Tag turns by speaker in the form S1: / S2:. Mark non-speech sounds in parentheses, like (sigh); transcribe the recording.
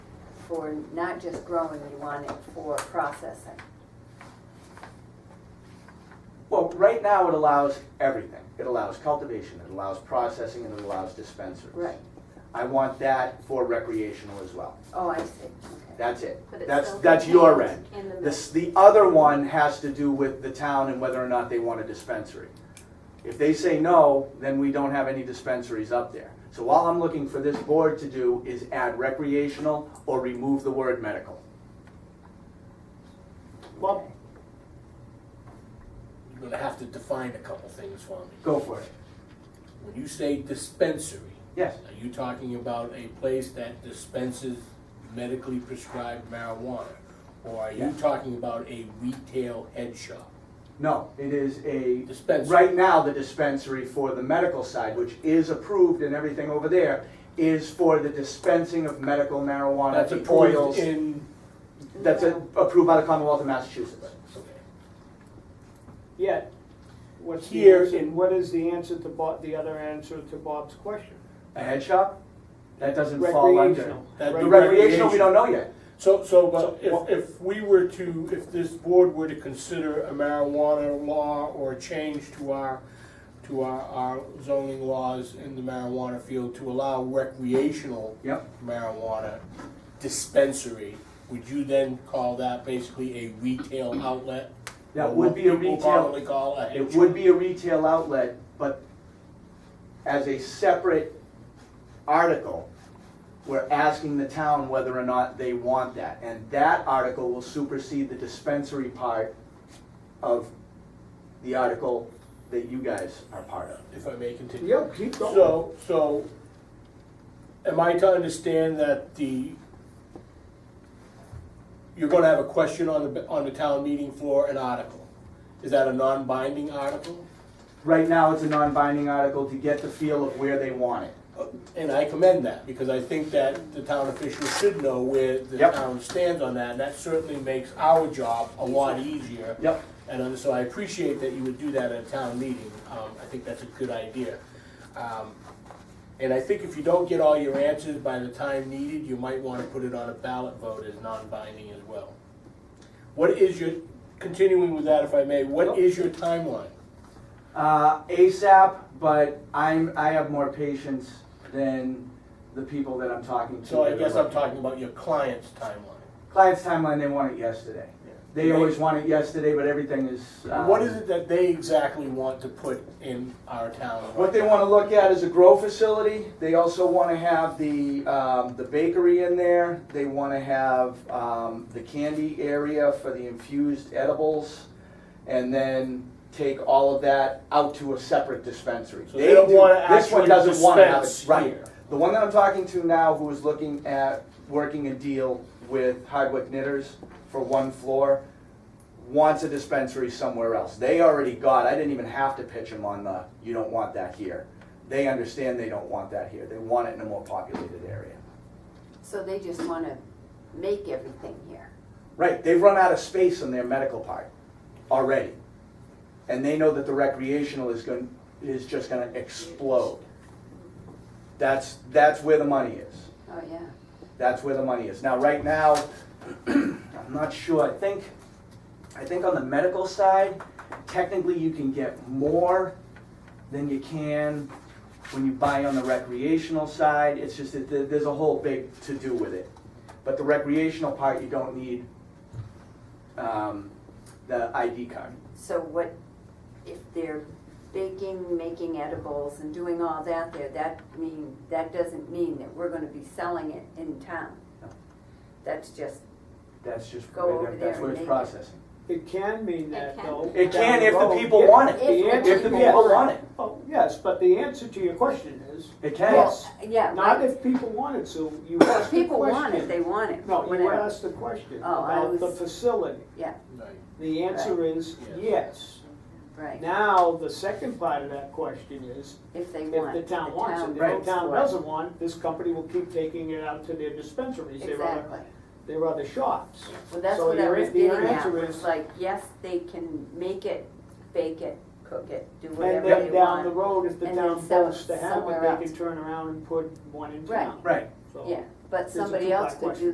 S1: for not just growing, you want it for processing.
S2: Well, right now it allows everything. It allows cultivation, it allows processing, and it allows dispensaries.
S1: Right.
S2: I want that for recreational as well.
S1: Oh, I see, okay.
S2: That's it.
S3: But it's
S2: That's,
S3: still
S2: that's your end.
S3: contained in the
S2: This, the other one has to do with the town and whether or not they want a dispensary. If they say no, then we don't have any dispensaries up there. So all I'm looking for this board to do is add recreational or remove the word medical.
S4: Well, you're gonna have to define a couple things for me.
S2: Go for it.
S4: When you say dispensary,
S2: Yes,
S4: are you talking about a place that dispenses medically prescribed marijuana? Or are you
S2: Yeah.
S4: talking about a retail head shop?
S2: no, it is a.
S4: Dispensary.
S2: Right now, the dispensary for the medical side, which is approved and everything over there, is for the dispensing of medical marijuana.
S4: That's
S2: the
S4: approved
S2: oils.
S4: in,
S2: That's a- approved by the Commonwealth of Massachusetts.
S4: okay.
S5: Yet, what's the
S2: Here
S5: answer,
S2: in-
S5: what is the answer to Bob, the other answer to Bob's question?
S2: A head shop? That doesn't fall under.
S5: Recreational.
S4: That'd
S2: The
S4: be
S5: Rec-
S2: recreational, we don't know yet.
S4: So, so,
S2: uh,
S5: So,
S4: but
S5: what-
S4: if, if we were to, if this board were to consider a marijuana law or a change to our, to our, our zoning laws in the marijuana field to allow recreational
S2: Yep.
S4: marijuana dispensary, would you then call that basically a retail outlet?
S2: That
S4: Or
S2: would
S4: what
S2: be a retail,
S4: people commonly call a head
S2: it
S4: shop?
S2: would be a retail outlet, but as a separate article, we're asking the town whether or not they want that. And that article will supersede the dispensary part of the article that you guys are part of.
S4: If I may continue.
S5: Yeah, keep going.
S4: So, so, am I to understand that the, you're gonna have a question on the, on the town meeting floor, an article? Is that a non-binding article?
S2: Right now, it's a non-binding article to get the feel of where they want it.
S4: And I commend that, because I think that the town officials should know where the
S2: Yep.
S4: town stands on that, and that certainly makes our job a lot easier.
S2: Yep.
S4: And uh, so I appreciate that you would do that at a town meeting. Um, I think that's a good idea. Um, And I think if you don't get all your answers by the time needed, you might want to put it on a ballot vote as non-binding as well. What is your, continuing with that if I may, what is your timeline?
S2: Uh, ASAP, but I'm, I have more patience than the people that I'm talking to.
S4: So I guess I'm talking about your client's timeline.
S2: Client's timeline, they want it yesterday. They
S4: Yeah.
S2: always want it yesterday, but everything is. uh,
S4: What is it that they exactly want to put in our town?
S2: What they wanna look at is a grow facility, they also wanna have the, um, the bakery in there, they wanna have, um, the candy area for the infused edibles, and then take all of that out to a separate dispensary.
S4: So they don't wanna
S2: do- this one
S4: actually
S2: doesn't wanna have it,
S4: dispense
S2: right.
S4: here.
S2: The one that I'm talking to now, who is looking at working a deal with Hardwick Knitters for one floor, wants a dispensary somewhere else. They already got, I didn't even have to pitch them on the, you don't want that here. They understand they don't want that here. They want it in a more populated area.
S1: So they just wanna make everything here.
S2: Right, they've run out of space on their medical part already. And they know that the recreational is going, is just gonna explode. That's, that's where the money is.
S1: Oh, yeah.
S2: That's where the money is. Now, right now, (clears throat) I'm not sure, I think, I think on the medical side, technically you can get more than you can when you buy on the recreational side. It's just that there- there's a whole big to-do with it. But the recreational part, you don't need, um, the ID card.
S1: So what, if they're baking, making edibles and doing all that there, that mean, that doesn't mean that we're gonna be selling it in town.
S2: No.
S1: That's just,
S2: That's just,
S1: Go over there
S2: that's
S1: and
S2: where it's
S1: make it.
S2: processing.
S5: It can mean
S3: It
S5: that
S3: can.
S5: though.
S2: It
S5: down
S2: can if the
S5: road.
S2: people
S5: Yeah,
S2: want it.
S5: The
S1: If the
S5: answer,
S2: If the
S1: people
S5: yes.
S2: people want it,
S5: Oh, yes, but the answer to your question is,
S2: it can.
S5: yes.
S1: yeah,
S5: Not
S1: right.
S5: if people want it, so you asked the
S1: people want it,
S5: question.
S1: they want it.
S5: No, you
S1: Whatever.
S5: asked the question
S1: Oh, I
S5: about the
S1: was-
S5: facility.
S1: Yeah,
S4: Right.
S5: The answer is
S4: Yes.
S5: yes.
S1: right,
S5: Now, the second part of that question is,
S1: if they
S5: if
S1: want.
S5: the town wants it,
S2: Right.
S5: if the town
S1: votes for
S5: doesn't want, this company will keep taking it out to their dispensaries,
S1: it.
S5: their other,
S1: Exactly.
S5: their other shops.
S1: Well, that's
S5: So
S1: what I
S5: your-
S1: was
S5: the
S1: getting at,
S5: answer
S1: was
S5: is-
S1: like, yes, they can make it, bake it, cook it, do
S5: And
S1: whatever they want.
S5: then down the road, if the
S1: And then
S5: town
S1: sell it
S5: votes to have
S1: somewhere
S5: it, they
S1: else.
S5: can turn around and put one in
S1: Right.
S5: town.
S2: Right.
S5: So-
S1: Yeah, but
S5: It's a
S1: somebody
S5: two-part
S1: else could
S5: question.
S1: do